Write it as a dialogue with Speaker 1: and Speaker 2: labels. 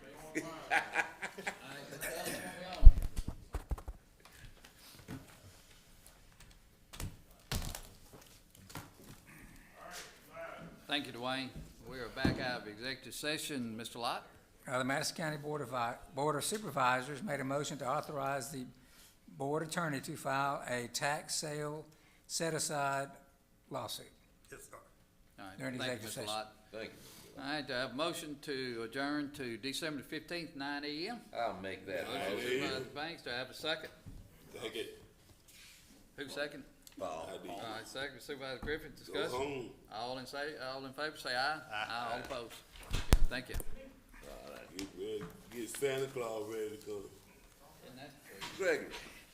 Speaker 1: Thank you, Dwayne. We are back out of executive session. Mr. Lot?
Speaker 2: Uh, The Madison County Board of, I- Board of Supervisors made a motion to authorize the board attorney to file a tax sale set-aside lawsuit.
Speaker 3: Yes, sir.
Speaker 1: All right,
Speaker 2: During
Speaker 1: thank you,
Speaker 2: executive
Speaker 1: Mr. Lot.
Speaker 4: Thank you.
Speaker 1: All right, do I have a motion to adjourn to December fifteenth, nine AM?
Speaker 4: I'll make that
Speaker 1: Motion by
Speaker 4: motion.
Speaker 1: Supervisor Banks, do I have a second?
Speaker 5: Take it.
Speaker 1: Who second?
Speaker 5: I did.
Speaker 1: All right, second Supervisor Griffin,
Speaker 5: Go
Speaker 1: discussion.
Speaker 5: home.
Speaker 1: All in say, all in favor, say aye. Aye. All opposed. Thank you.
Speaker 5: Get ready. Get Santa Claus ready to come.
Speaker 1: And that's-
Speaker 4: Gregory.